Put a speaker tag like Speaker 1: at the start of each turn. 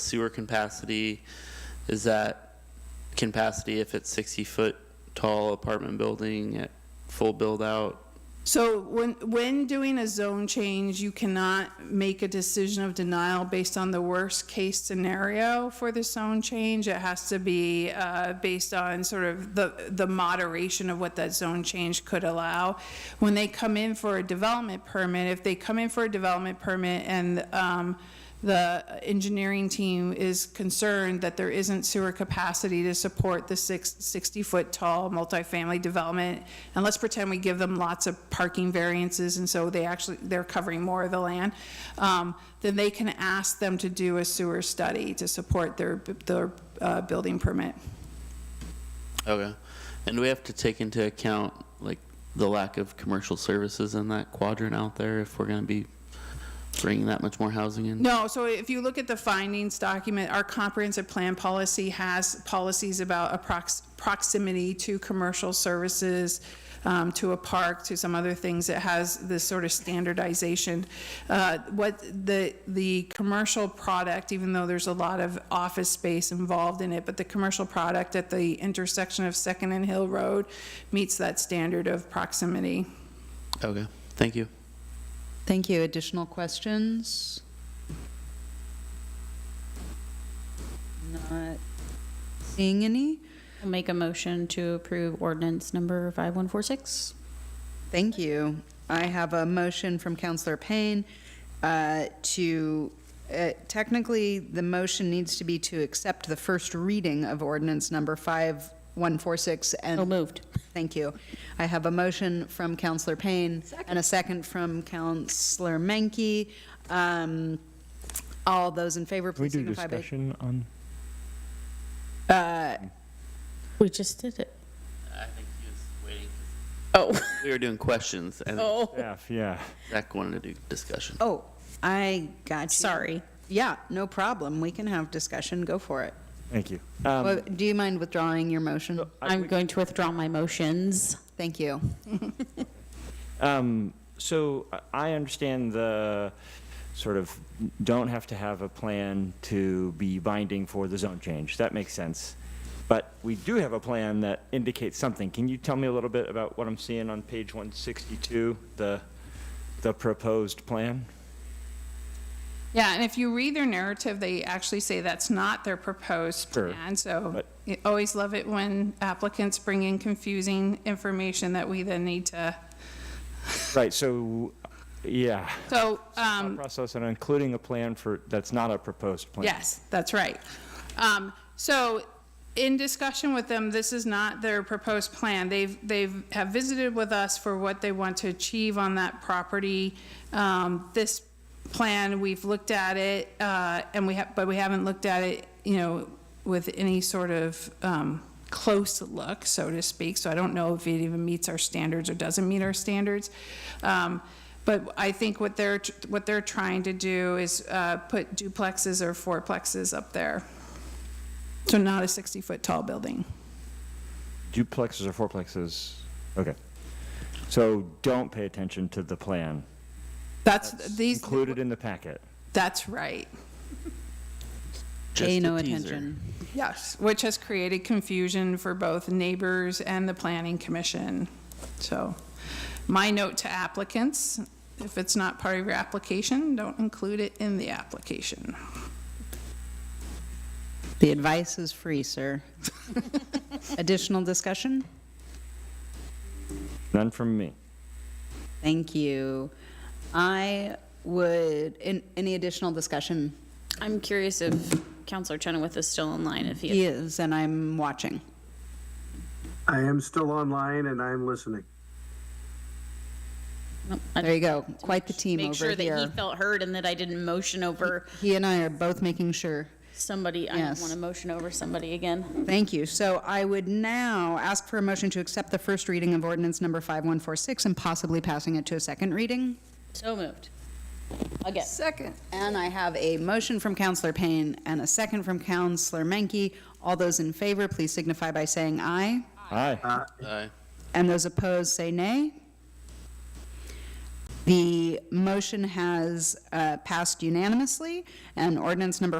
Speaker 1: sewer capacity is that capacity if it's 60 foot tall apartment building at full build out
Speaker 2: So when, when doing a zone change, you cannot make a decision of denial based on the worst case scenario for the zone change. It has to be uh, based on sort of the, the moderation of what that zone change could allow. When they come in for a development permit, if they come in for a development permit and um, the engineering team is concerned that there isn't sewer capacity to support the six, 60-foot tall multifamily development. And let's pretend we give them lots of parking variances, and so they actually, they're covering more of the land. um, Then they can ask them to do a sewer study to support their, their uh, building permit.
Speaker 1: okay and we have to take into account like the lack of commercial services in that quadrant out there if we're going to be bringing that much more housing in
Speaker 2: No, so if you look at the findings document, our comprehensive plan policy has policies about approx- proximity to commercial services, um, to a park, to some other things. It has this sort of standardization. Uh, What the, the commercial product, even though there's a lot of office space involved in it, but the commercial product at the intersection of Second and Hill Road meets that standard of proximity.
Speaker 1: okay thank you
Speaker 3: Thank you. Additional questions? Not seeing any.
Speaker 4: I'll make a motion to approve ordinance number 5146.
Speaker 3: Thank you. I have a motion from Counselor Payne uh, to, uh, technically, the motion needs to be to accept the first reading of ordinance number 5146 and.
Speaker 4: So moved.
Speaker 3: Thank you. I have a motion from Counselor Payne and a second from Counselor Menke. Um, All those in favor,
Speaker 5: Can we
Speaker 3: please
Speaker 5: do
Speaker 3: signify by.
Speaker 5: discussion on,
Speaker 3: Uh,
Speaker 4: We just did it.
Speaker 1: i think he was waiting
Speaker 4: Oh.
Speaker 1: we were doing questions and
Speaker 4: Oh.
Speaker 5: staff, yeah.
Speaker 1: zach wanted to do discussion
Speaker 3: Oh, I got you.
Speaker 4: Sorry.
Speaker 3: Yeah, no problem. We can have discussion. Go for it.
Speaker 5: Thank you. Um,
Speaker 3: Well, Do you mind withdrawing your motion?
Speaker 4: I'm going to withdraw my motions.
Speaker 3: Thank you.
Speaker 5: Um, so I- I understand the sort of don't have to have a plan to be binding for the zone change. That makes sense. But we do have a plan that indicates something. Can you tell me a little bit about what I'm seeing on page 162, the, the proposed plan?
Speaker 2: Yeah, and if you read their narrative, they actually say that's not their proposed
Speaker 5: Sure.
Speaker 2: plan. So
Speaker 5: But-
Speaker 2: I always love it when applicants bring in confusing information that we then need to,
Speaker 5: Right, so, yeah.
Speaker 2: so,
Speaker 5: Thought
Speaker 2: um,
Speaker 5: Process and including a plan for, that's not a proposed plan.
Speaker 2: Yes, that's right. Um, so in discussion with them, this is not their proposed plan. They've, they've have visited with us for what they want to achieve on that property. Um, this plan, we've looked at it, uh, and we have, but we haven't looked at it, you know, with any sort of, um, close look, so to speak. So I don't know if it even meets our standards or doesn't meet our standards. Um, but I think what they're, what they're trying to do is uh, put duplexes or fourplexes up there. So not a 60-foot tall building.
Speaker 5: duplexes or fourplexes. Okay. So don't pay attention to the plan
Speaker 2: That's, these,
Speaker 5: included in the packet.
Speaker 2: that's right,
Speaker 1: Just
Speaker 3: Pay
Speaker 1: a
Speaker 3: no
Speaker 1: teaser.
Speaker 3: attention.
Speaker 2: yes, which has created confusion for both neighbors and the planning commission. So my note to applicants, if it's not part of your application, don't include it in the application.
Speaker 3: The advice is free, sir. Additional discussion?
Speaker 5: None from me.
Speaker 3: Thank you. I would, in- any additional discussion?
Speaker 4: I'm curious if Counselor Chenoweth is still in line, if he
Speaker 3: He is, and I'm watching.
Speaker 6: I am still online and I'm listening.
Speaker 4: Nope, I-
Speaker 3: There you go. Quite the team
Speaker 4: Make sure
Speaker 3: over
Speaker 4: that he
Speaker 3: here.
Speaker 4: felt heard and that I didn't motion over
Speaker 3: He and I are both making sure.
Speaker 4: somebody. I don't
Speaker 3: Yes.
Speaker 4: want to motion over somebody again.
Speaker 3: Thank you. So I would now ask for a motion to accept the first reading of ordinance number 5146 and possibly passing it to a second reading.
Speaker 4: So moved. Again.
Speaker 2: Second.
Speaker 3: And I have a motion from Counselor Payne and a second from Counselor Menke. All those in favor, please signify by saying aye.
Speaker 5: Aye.
Speaker 1: Aye.
Speaker 3: And those opposed, say nay. The motion has uh, passed unanimously, and ordinance number